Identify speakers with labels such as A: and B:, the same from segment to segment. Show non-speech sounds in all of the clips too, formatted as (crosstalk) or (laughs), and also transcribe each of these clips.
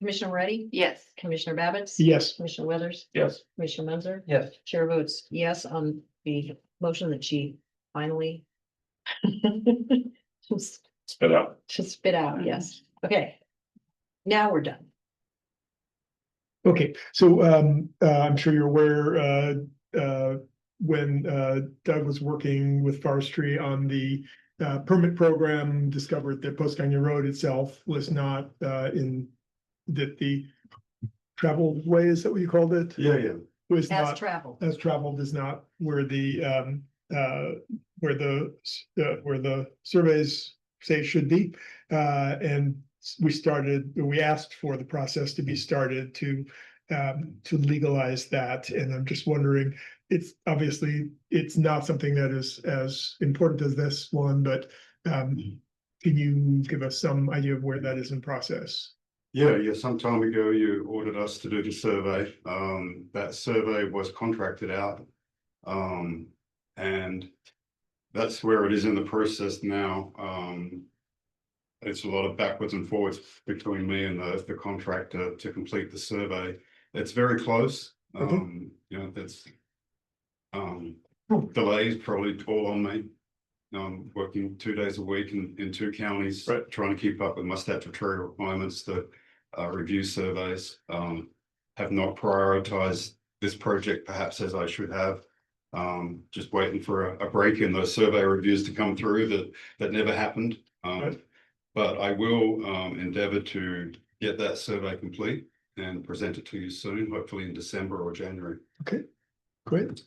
A: Commissioner Ready,
B: (laughs) Yes.
A: Commissioner Babbitts,
C: Yes.
A: Commissioner Weathers,
C: Yes.
A: Commissioner Munzer,
C: Yes.
A: Chair votes yes on the motion that she finally (laughs) just
C: Spit out.
A: just spit out, yes, okay. Now we're done.
D: Okay, so um, uh, I'm sure you're aware, uh, uh, when uh, Doug was working with forestry on the uh, permit program, discovered that Post Canyon Road itself was not uh, in that the traveled way, is that what you called it?
C: Yeah, yeah.
D: Was
A: As
D: not
A: traveled,
D: as traveled is not where the um, uh, where the, s- uh, where the surveys say it should be. Uh, and s- we started, we asked for the process to be started to um, to legalize that. And I'm just wondering, it's obviously, it's not something that is as important as this one, but um, can you give us some idea of where that is in process?
E: Yeah, yeah, some time ago you ordered us to do the survey. Um, that survey was contracted out. Um, and that's where it is in the process now. Um. It's a lot of backwards and forwards between me and the, the contractor to complete the survey. It's very close.
D: Okay.
E: Um, you know, that's. Um, delays probably all on me. I'm working two days a week in, in two counties.
C: Right.
E: Trying to keep up with my statutory requirements to, uh, review surveys, um, have not prioritized this project perhaps as I should have. Um, just waiting for a, a break in those survey reviews to come through that, that never happened. Um,
D: Right.
E: but I will, um, endeavor to get that survey complete and present it to you soon, hopefully in December or January.
D: Great,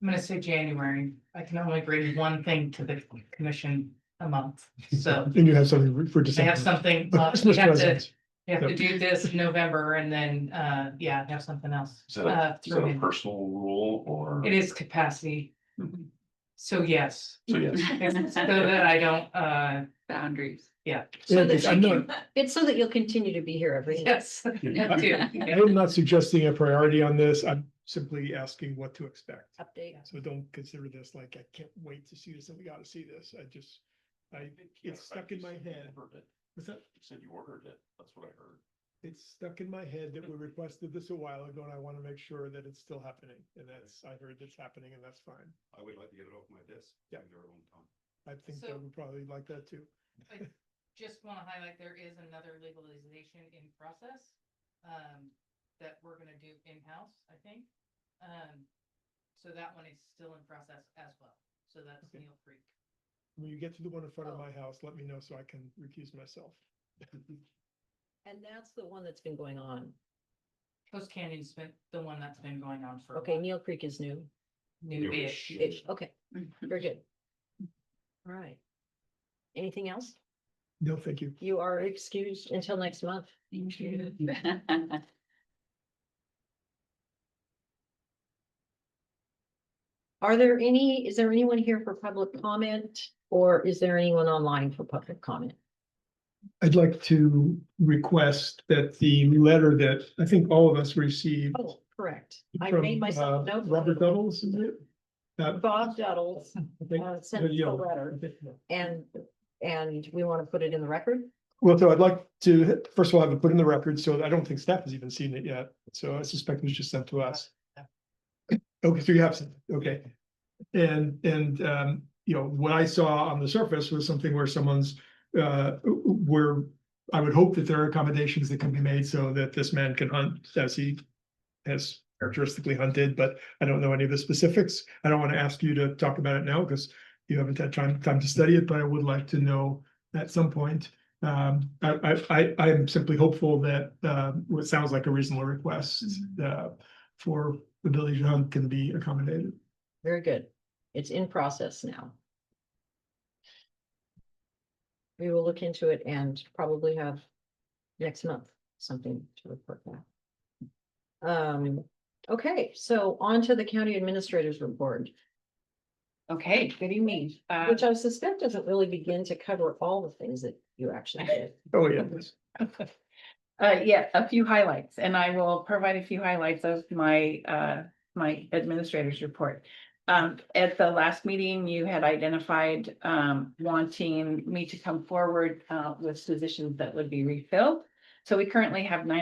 F: I'm gonna say January. I can only bring one thing to the commission a month,
D: (laughs)
F: so
D: and you have something for
F: I
D: December?
F: have something.
D: Oh, (laughs)
F: uh, We
D: Christmas
F: have to,
D: presents.
F: we have to do this in November and then, uh, yeah, have something else.
C: Is that a-
F: uh,
C: Is that
F: thrown
C: a
F: in.
C: personal rule or?
F: It is capacity, so yes,
C: So yes,
F: so that I don't, uh, (laughs)
B: Boundaries.
F: yeah,
A: so
D: Yeah,
A: that
D: I'm
A: you
D: not-
A: can- it's so that you'll continue to be here every.
F: yes. I do, yeah.
D: (laughs) I'm not suggesting a priority on this. I'm simply asking what to expect.
F: Uh,
A: Update.
D: So don't consider this like, I can't wait to see this and we gotta see this. I just, I, it's stuck in my head.
C: Heard it.
D: What's that?
C: You said you ordered it. That's what I heard.
D: It's stuck in my head that we requested this a while ago and I wanna make sure that it's still happening. And that's, I heard it's happening and that's fine.
E: I would like to get it off my desk.
D: Yeah.
E: Been there a long time.
D: I think
F: So-
D: Doug would probably like that too.
F: I just want to highlight, there is another legalization in process um, that we're gonna do in-house, I think. Um, so that one is still in process as well. So that's
D: Okay.
F: Neil Creek.
D: When you get to the one in front of
F: Oh.
D: my house, let me know so I can recuse myself.
A: And that's the one that's been going on.
F: Coast Canyon's been the one that's been going on for. a
A: Okay,
F: while.
A: Neil Creek is new.
F: New-ish.
A: Ish, Okay, very good. All right. Anything else?
D: No, thank you.
A: You are excused until next month.
B: Thank you.
A: Are there any, is there anyone here for public comment or is there anyone online for public comment?
D: I'd like to request that the letter that I think all of us received.
A: Oh, correct. I
D: from,
A: made myself
D: uh,
A: note.
D: Robert Doddles, is it? Uh,
A: Bob Duddles
D: I think-
A: uh, sent the
D: yeah.
A: letter and, and we want to put it in the record.
D: Well, so I'd like to, first of all, have it put in the record, so I don't think staff has even seen it yet, so I suspect it was just sent to us. Okay, so you have, seen it, okay. And, and, um, you know, what I saw on the surface was something where someone's, uh, where I would hope that there are accommodations that can be made so that this man can hunt as he has characteristically hunted, but I don't know any of the specifics. I don't want to ask you to talk about it now because you haven't had time, time to study it, but I would like to know at some point. Um, I, I, I, I am simply hopeful that, uh, what sounds like a reasonable request, uh, for the ability to hunt can be accommodated.
A: Very good. It's in process now. We will look into it and probably have next month something to report back. Um, okay, so on to the county administrators report,
B: Okay, good evening. Uh,
A: which I suspect doesn't really begin to cover all the things that you actually did.
D: Oh, yeah.
B: Uh, yeah, a few highlights, and I will provide a few highlights of my, uh, my administrator's report. Um, at the last meeting, you had identified, um, wanting me to come forward, uh, with positions that would be refilled. So we currently have nine